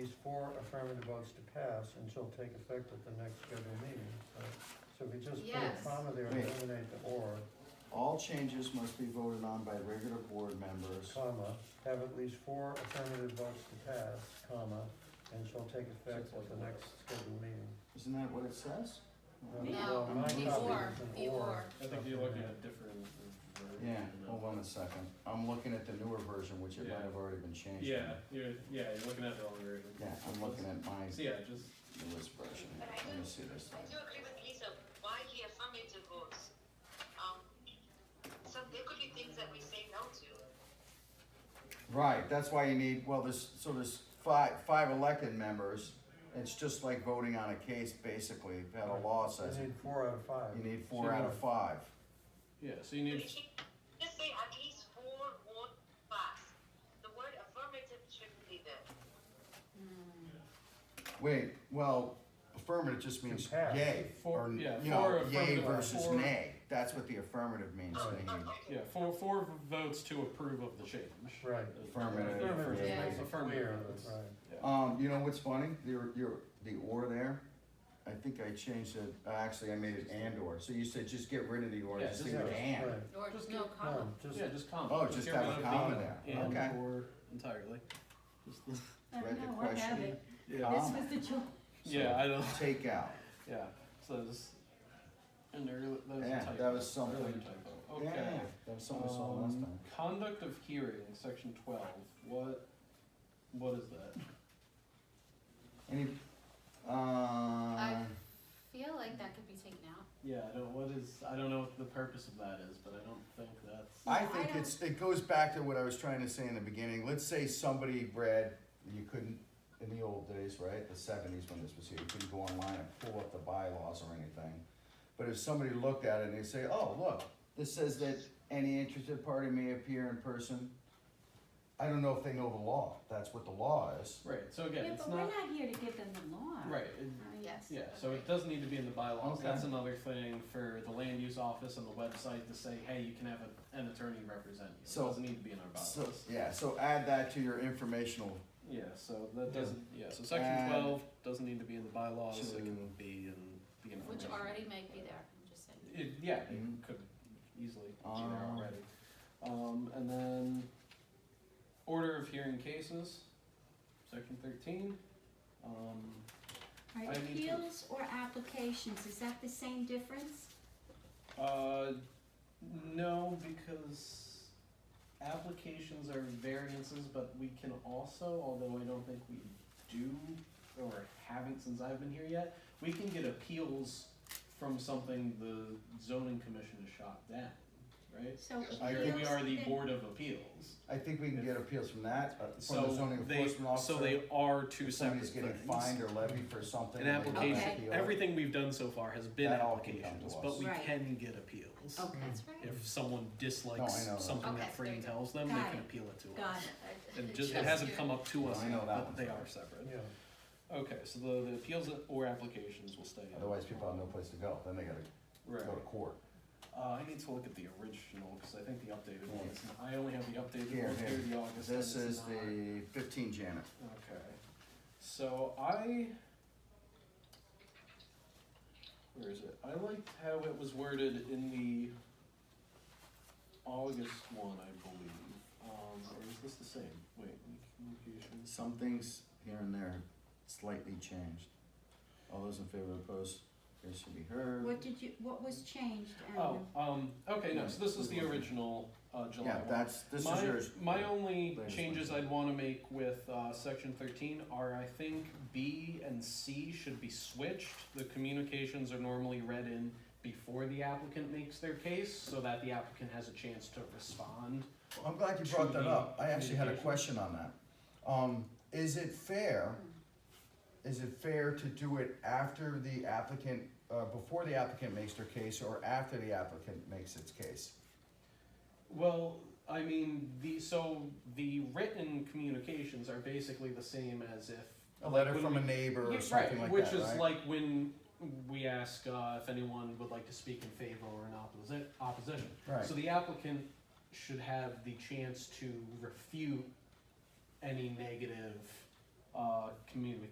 was four affirmative votes to pass and shall take effect at the next scheduled meeting, so. So if you just put a Yes. comma there, Wait. eliminate the or, All changes must be voted on by regular board members. comma, have at least four affirmative votes to pass, comma, and shall take effect at the next scheduled meeting. Isn't that what it says? No, Well, my copy before, is an before. I think you're looking at different. versions Yeah, Oh, of hold on a second. I'm looking at the newer version, which it might have already been it. changed. Yeah, you're, yeah, you're looking at the wrong version. Yeah, I'm looking at my So yeah, just, newest version. But I Let me do- see this. I do agree with Lisa, why the affirmative votes? Um, so there could be things that we say no to. Right, that's why you need, well, there's, so there's five, five elected members. It's just like voting on a case, basically, that a law says. You it. need four out of five. You need four out of five. yeah, so you But need, if you just say at least four vote pass, the word affirmative shouldn't be there. Wait, well, affirmative just means pass. yay, For- or, you yeah, know, for yay affirmative, uh, versus for- nay. That's what the affirmative means, Oh, Naeem. oh, okay. yeah, four, four votes to approve of the change. Right. Affirmative. Affirmative Yeah. makes it Affirmative clear, votes. right. Yeah. Um, you know what's funny? Your, your, the or there, I think I changed it, uh, actually, I made it and or. So you said just get rid of the or, Yeah, just just leave it get- and. Right. Or Just no give- comma. No, just- Yeah, just comma. Oh, Just just get have rid a of comma the there. and Okay. or entirely. Just the- I Read don't the know, we're question. having, Yeah, Um, this was the joke. yeah, I don't, Take out. yeah, so just, and there, that was a Yeah, typo. that was something. Really a typo. Yeah, Okay. that was something I saw last Um, time. Conduct of hearing, section twelve, what, what is that? Any, uh, I feel like that could be taken out. Yeah, I don't, what is, I don't know what the purpose of that is, but I don't think that's, I I think don't- it's, it goes back to what I was trying to say in the beginning. Let's say somebody, Brad, you couldn't, in the old days, right, the seventies when this was here, you couldn't go online and pull up the bylaws or anything. But if somebody looked at it and they say, oh, look, this says that any interested party may appear in person. I don't know if they know the law. That's what the law is. right, so Yeah, again, it's but we're not, not here to give them the law. right, it- Uh, Yes. yeah, so it does need to be in the bylaws, Okay. that's another thing for the land use office and the website to say, hey, you can have a- an attorney represent you, So- it doesn't need to be in our So, bylaws. yeah, so add that to your informational Yeah, so that doesn't, yeah, so section And- twelve doesn't need to be in the bylaws, it can To- be in the information. Which already might be there, I'm just saying. It, yeah, it Mhm. could easily be there Um. already. Um, and then order of hearing cases, section thirteen. Um, Are I need to- appeals or applications, is that the same difference? uh, no, because applications are variances, but we can also, although I don't think we do or haven't since I've been here yet, we can get appeals from something the zoning commission has shot down, right? So I Here think- we are the appeals- board of appeals. I think we can get appeals from that, uh, from the So zoning they, enforcement officer. so they are two If separate somebody's getting fined things. or levied for something. An they go back application, to the other- everything we've done so far has been That all can come applications, to us. but we Right. can get appeals. Okay, That's right. If someone No, I dislikes know that. something Okay, that there Fran you go. tells them, they Got can it. appeal it to us. got it. And just, it Just hasn't you. come up to No, us, I know yet, that but one's they right. are separate. Yeah. Okay, so the, the appeals or applications will stay. in. Otherwise, people have no place to go, then they gotta Right. go to court. Uh, I need to look at the original, cause I think the updated one Yeah. is, I only have the updated Here, one here. through the August. and This it's is not- the fifteen Janet. Okay, so I. Where is it? I liked how it was worded in the August one, I believe. Um, or is this the same? Wait, communications. Some things here and there slightly changed. All those in favor opposed, they should be heard. What did you, what was changed, Oh, Alan? um, okay, no, so this is the original, uh, July Yeah, one. that's, this My, is yours. my only Latest changes one. I'd wanna make with, uh, section thirteen are, I think B and C should be switched. The communications are normally read in before the applicant makes their case, so that the applicant has a chance to respond. I'm glad you brought that up. I actually had a Communication. question on that. Um, is it fair, is it fair to do it after the applicant, uh, before the applicant makes their case or after the applicant makes its case? Well, I mean, the, so the written communications are basically the same as if. A letter when from we- a neighbor Yeah, or something like which that, is right? like when we ask uh, if anyone would like to speak in favor or in opposi- opposition. Right. So the applicant should have the chance to refute any negative uh, community